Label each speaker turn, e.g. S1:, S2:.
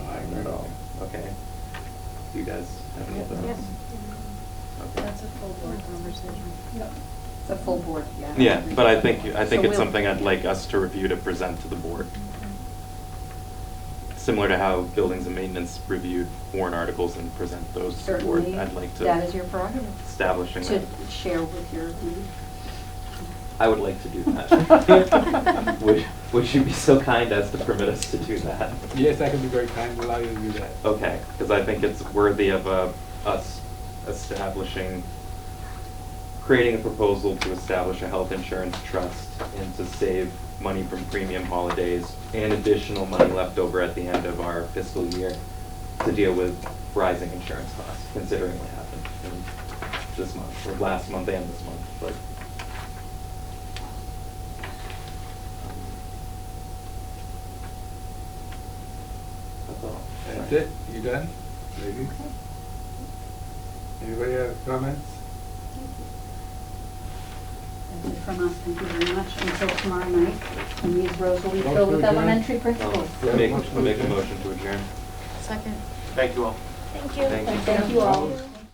S1: Do you guys have any
S2: Yes.
S1: thoughts? Okay.
S2: That's a full board conversation.
S3: It's a full board, yeah.
S1: Yeah, but I think, I think it's
S3: So we'll-
S1: something I'd like us to review to present to the board.
S3: Mm-hmm.
S1: Similar to how buildings and maintenance reviewed warrant articles and present those to the board.
S3: Certainly,
S1: I'd like to.
S3: that is your prerogative,
S1: Establishing
S3: to
S1: that.
S3: share with your lead.
S1: I would like to do that. Would, would you be so kind as to permit us to do that?
S4: Yes, I can be very kind, allow you to do that.
S1: Okay, because I think it's worthy of uh, us establishing, creating a proposal to establish a health insurance trust and to save money from premium holidays and additional money left over at the end of our fiscal year to deal with rising insurance costs, considering what happened in this month, or last month and this month, but. um, That's all.
S4: That's it, you done? Very good. Anybody have comments?
S3: That's it from us, thank you very much, until tomorrow night, and these rows will be
S4: Motion
S3: filled
S4: to
S3: with
S4: adjourn?
S3: elementary
S1: Um,
S3: principals.
S4: Yeah,
S1: Make,
S4: motion to
S1: make a
S4: adjourn.
S1: motion to adjourn.
S2: Second.
S5: Thank you all.
S1: Thank you.
S3: Thank you all.
S4: Opposed?